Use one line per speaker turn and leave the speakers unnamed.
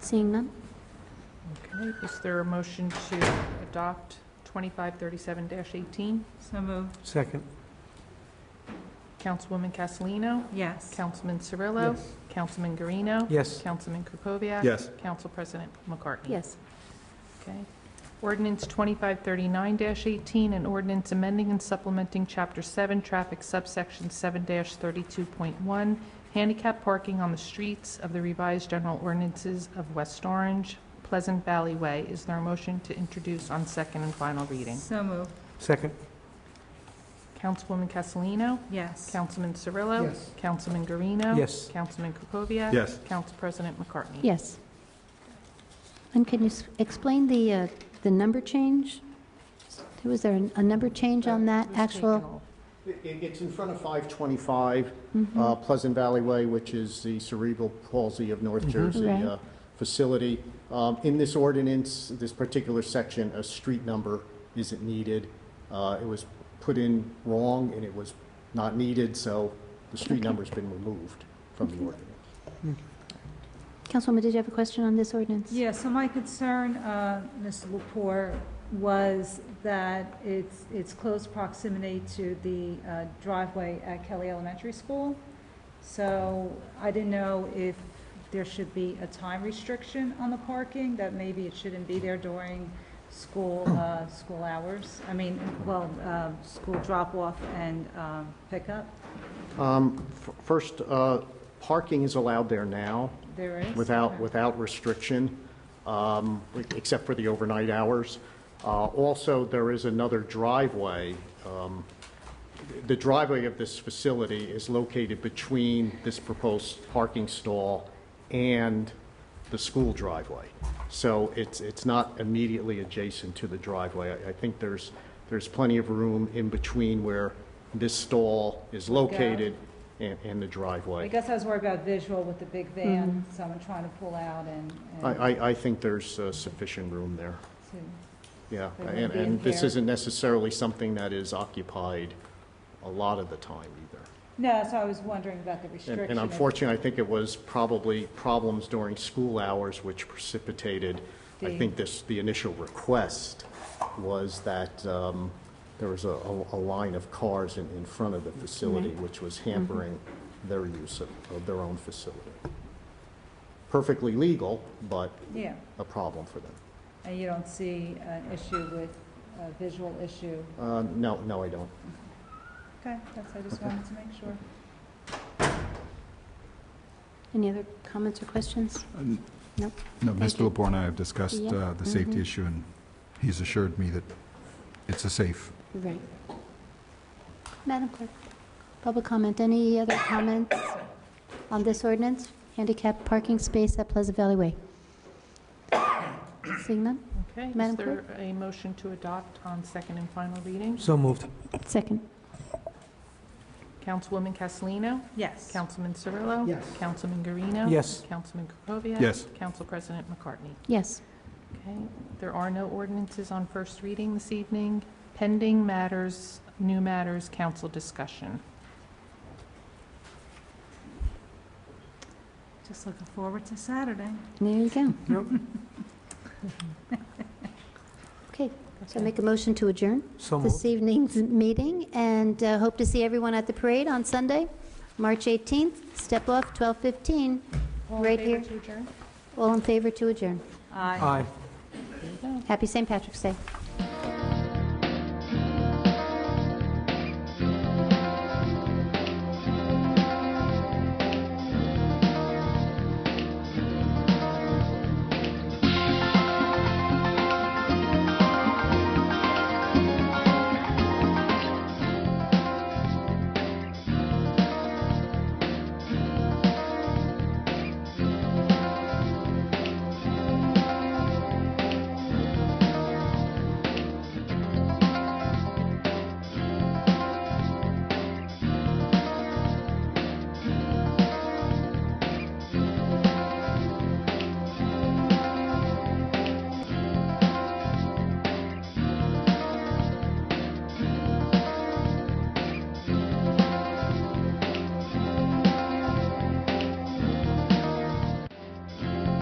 Seeing none?
Okay, is there a motion to adopt 2537-18?
So moved,
Second.
Councilwoman Castellino?
yes.
Councilman Cirillo? Councilman Guarino?
Yes.
Councilman Krokoviac?
Yes.
Council President McCartney?
Yes.
Okay. Ordinance 2539-18, an ordinance amending and supplementing Chapter 7, Traffic Subsection 7-32.1, handicap parking on the streets of the revised general ordinances of West Orange, Pleasant Valley Way. Is there a motion to introduce on second and final reading?
So moved,
Second.
Councilwoman Castellino?
yes.
Councilman Cirillo?
Yes.
Councilman Guarino?
Yes.
Councilman Krokoviac?
Yes.
Council President McCartney?
Yes. And can you s- explain the, uh, the number change? Was there an- a number change on that
It was taken
actual?
off.
It- It's in front of 525
Mhm.
uh, Pleasant Valley Way, which is the cerebral palsy of North Jersey
Right.
uh, facility. Um, In this ordinance, this particular section, a street number isn't needed. Uh, It was put in wrong, and it was not needed, so the street number's been removed from the ordinance.
Councilwoman, did you have a question on this ordinance?
Yeah, so my concern, uh, Mr. Lepore, was that it's, it's close proximity to the uh, driveway at Kelly Elementary School. So I didn't know if there should be a time restriction on the parking, that maybe it shouldn't be there during school, uh, school hours. I mean, well, uh, school drop-off and um, pickup,
Um, f- First, uh, parking is allowed there now.
there is.
without, without restriction, um, except for the overnight hours. Uh, Also, there is another driveway. um, The driveway of this facility is located between this proposed parking stall and the school driveway. So it's, it's not immediately adjacent to the driveway. I- I think there's, there's plenty of room in between where this stall is located and, and the driveway.
I guess I was worried about visual with the big van, someone trying to pull out and. and
I, I, I think there's uh, sufficient room there,
to-
yeah.
There won't
And,
be
and this
impaired.
isn't necessarily something that is occupied a lot of the time either.
No, so I was wondering about the
And-
restriction.
And unfortunately, I think it was probably problems during school hours which precipitated, I
The-
think this, the initial request was that um, there was a, a a line of cars in, in front of the facility,
Mm-hmm.
which was hampering their use of, of their own facility. Perfectly legal, but
Yeah,
a problem for them.
and you don't see an issue with, a visual issue.
Uh, No, no, I don't.
Okay, that's, I just wanted to make sure.
Any other comments or questions? Nope.
No,
Thank you.
Mr. Lepore and I have discussed
Yeah.
uh, the safety
Mhm.
issue, and he's assured me that it's a safe.
Right. Madam Clerk, public comment, any other comments on this ordinance? Handicap parking space at Pleasant Valley Way. Seeing none?
Okay, is
Madam
there a motion to adopt on second and final reading?
So moved.
Second.
Councilwoman Castellino?
Yes.
Councilman Cirillo?
Yes.
Councilman Guarino?
Yes.
Councilman Krokoviac?
Yes.
Council President McCartney?
Yes.
Okay, there are no ordinances on first reading this evening. Pending matters, new matters, council discussion.
Just looking forward to Saturday.
There you go. Okay, so make a motion to adjourn
So
this
moved.
evening's meeting, and uh, hope to see everyone at the parade on Sunday, March 18th. Step off, 12:15, right here. All in favor to adjourn.
Aye.
Aye.
Happy St. Patrick's Day.
Thank